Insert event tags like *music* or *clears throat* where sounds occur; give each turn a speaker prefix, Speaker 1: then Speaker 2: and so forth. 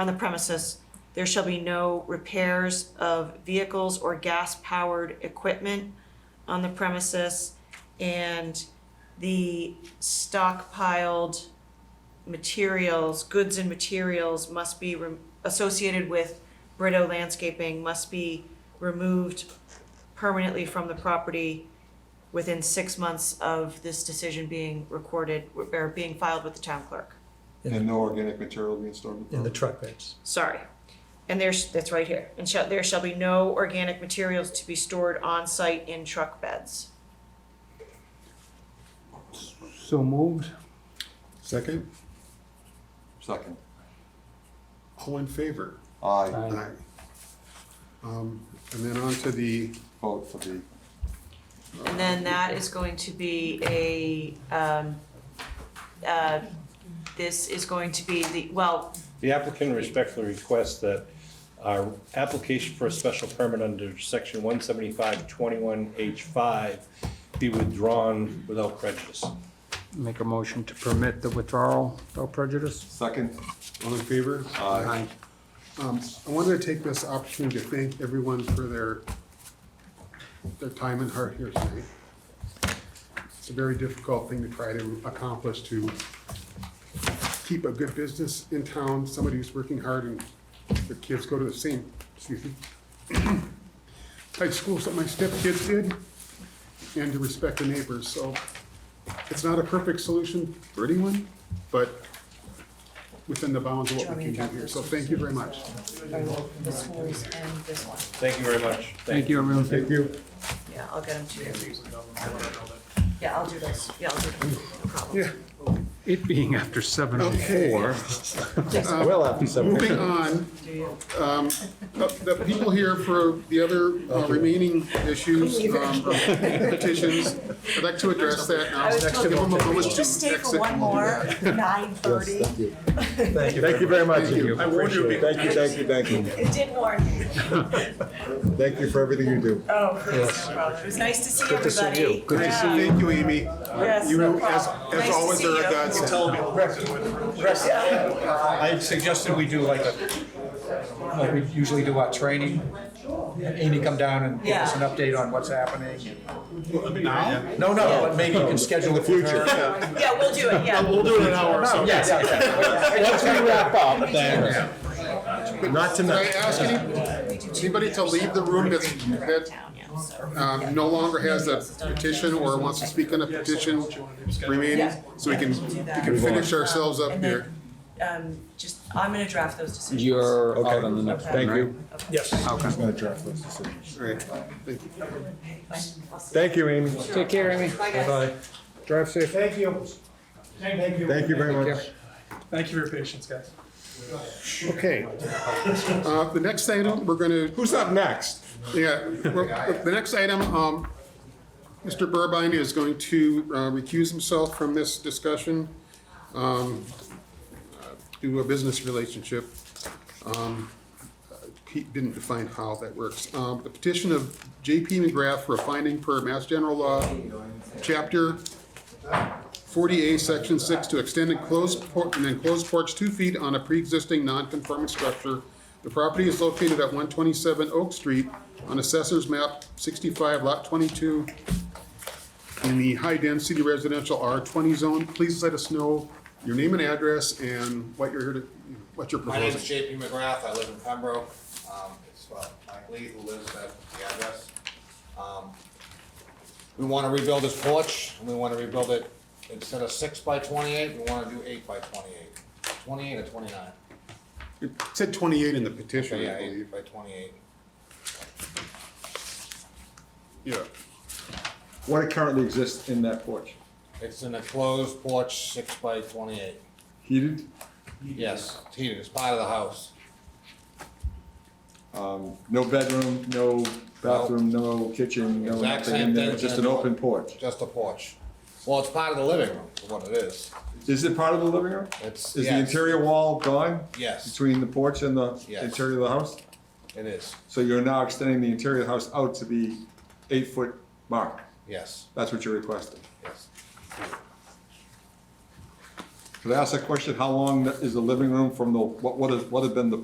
Speaker 1: on the premises, there shall be no repairs of vehicles or gas-powered equipment on the premises, and the stockpiled materials, goods and materials must be rem- associated with Brito landscaping must be removed permanently from the property within six months of this decision being recorded, or being filed with the town clerk.
Speaker 2: And no organic material being stored in the
Speaker 3: in the
Speaker 2: property.
Speaker 3: truck beds.
Speaker 1: sorry. And there's, that's right here, and shall, there shall be no organic materials to be stored on site in truck beds.
Speaker 4: So moved.
Speaker 5: Second,
Speaker 2: Second.
Speaker 5: all in favor?
Speaker 4: Uh,
Speaker 2: Aye,
Speaker 5: Aye. Um, and then on to the,
Speaker 2: vote for the,
Speaker 1: And then that is going to be a, um, uh, this is going to be the, well,
Speaker 6: The applicant respectfully requests that our application for a special permit under section one seventy-five twenty-one H five be withdrawn without prejudice.
Speaker 4: Make a motion to permit the withdrawal without prejudice.
Speaker 2: second,
Speaker 5: all in favor?
Speaker 2: Aye.
Speaker 5: Um, I wanted to take this opportunity to thank everyone for their, their time and heart here tonight. It's a very difficult thing to try to accomplish, to keep a good business in town, somebody who's working hard and their kids go to the same, excuse me, *clears throat* type schools that my stepkids did, and to respect the neighbors, so it's not a perfect solution for anyone, but within the bounds of what we can do here, so thank you very much.
Speaker 1: this was and this one.
Speaker 6: Thank you very much.
Speaker 4: Thank you, everyone.
Speaker 5: you.
Speaker 1: Yeah, I'll get them to you. Yeah, I'll do this, yeah, I'll do this, no problem.
Speaker 5: Yeah,
Speaker 4: It being after seven oh
Speaker 5: Okay.
Speaker 4: four.
Speaker 3: Well, after seven.
Speaker 5: moving on,
Speaker 1: Do you?
Speaker 5: um, the, the people here for the other uh, remaining issues, um, petitions, I'd like to address that now.
Speaker 7: I was told-
Speaker 5: Give them a moment to
Speaker 7: Just stay for
Speaker 5: exit.
Speaker 7: one more, nine thirty.
Speaker 3: Thank you very much.
Speaker 5: Thank you. I warned you.
Speaker 3: Appreciate it.
Speaker 5: Thank you, thank you, thank you.
Speaker 7: It did warn you.
Speaker 5: Thank you for everything you do.
Speaker 7: Oh, please, no problem. It was nice to see everybody.
Speaker 3: to see you.
Speaker 5: Good to see you. Thank you, Amy. You, as, as always, are a godsend.
Speaker 3: I suggested we do like a, like we usually do our training. Amy come down and give us an
Speaker 7: Yeah.
Speaker 3: update on what's happening. No, no, but maybe you can schedule it for her.
Speaker 7: Yeah, we'll do it, yeah.
Speaker 5: We'll do it in an hour or so.
Speaker 3: Yes, yes, *laughs* yes. Once we wrap up, then. Not
Speaker 5: Can I ask any, anybody to leave the room that's, that
Speaker 7: Town, yeah, so.
Speaker 5: um, no longer has a petition or wants to speak on a petition remaining,
Speaker 7: Yeah.
Speaker 5: so we can, we can finish ourselves up here.
Speaker 7: Um, just, I'm gonna draft those decisions.
Speaker 4: You're out on the next one,
Speaker 7: Thank
Speaker 4: you.
Speaker 3: Yes.
Speaker 4: Okay.
Speaker 5: All right, thank you.
Speaker 7: Thank
Speaker 5: you, Amy.
Speaker 4: Take care, Amy.
Speaker 7: Bye, guys.
Speaker 5: Drive safe.
Speaker 8: Thank you. Thank you.
Speaker 5: Thank you very
Speaker 4: Take
Speaker 5: much.
Speaker 8: Thank you for your patience, guys.
Speaker 5: Okay. Uh, the next item, we're gonna. Who's up next? Yeah, we're- the next item, um, Mr. Burbine is going to uh, recuse himself from this discussion, um, uh, due to a business relationship. Um, uh, He didn't define how that works. Um, the petition of JP McGrath for a finding per Mass General Law, Chapter 40A, Section 6, to extend enclosed por- an enclosed porch two feet on a pre-existing non-conforming structure. The property is located at 127 Oak Street on Assessor's Map 65, Lot 22, in the high-density residential R20 zone. Please let us know your name and address and what you're here to, what you're
Speaker 9: My name is
Speaker 5: proposing.
Speaker 9: JP McGrath, I live in Pembroke, um, it's uh, Mike Lee who lives at the address. Um, We wanna rebuild this porch, and we wanna rebuild it, instead of six by twenty-eight, we wanna do eight by twenty-eight. Twenty-eight or twenty-nine?
Speaker 5: It said 28 in the petition,
Speaker 9: Yeah,
Speaker 5: I believe.
Speaker 9: eight by twenty-eight.
Speaker 5: Yeah.
Speaker 2: what currently exists in that porch?
Speaker 9: It's an enclosed porch, six by twenty-eight.
Speaker 2: Heated,
Speaker 9: Yes, it's heated, it's part of the house.
Speaker 2: no bedroom, no bathroom, no kitchen, no
Speaker 9: Exact
Speaker 2: nothing
Speaker 9: same
Speaker 2: in there,
Speaker 9: thing.
Speaker 2: just an open porch.
Speaker 9: Just a porch. Well, it's part of the living room, is what it is.
Speaker 2: Is it part of the living room?
Speaker 9: It's,
Speaker 2: Is the
Speaker 9: yes,
Speaker 2: interior wall gone?
Speaker 9: Yes.
Speaker 2: Between the porch and the
Speaker 9: Yes.
Speaker 2: interior of the house?
Speaker 9: it is,
Speaker 2: So you're now extending the interior of the house out to the eight-foot mark?
Speaker 9: yes,
Speaker 2: That's what you're requesting?
Speaker 9: yes.
Speaker 2: Could I ask a question? How long is the living room from the, what, what has, what had been the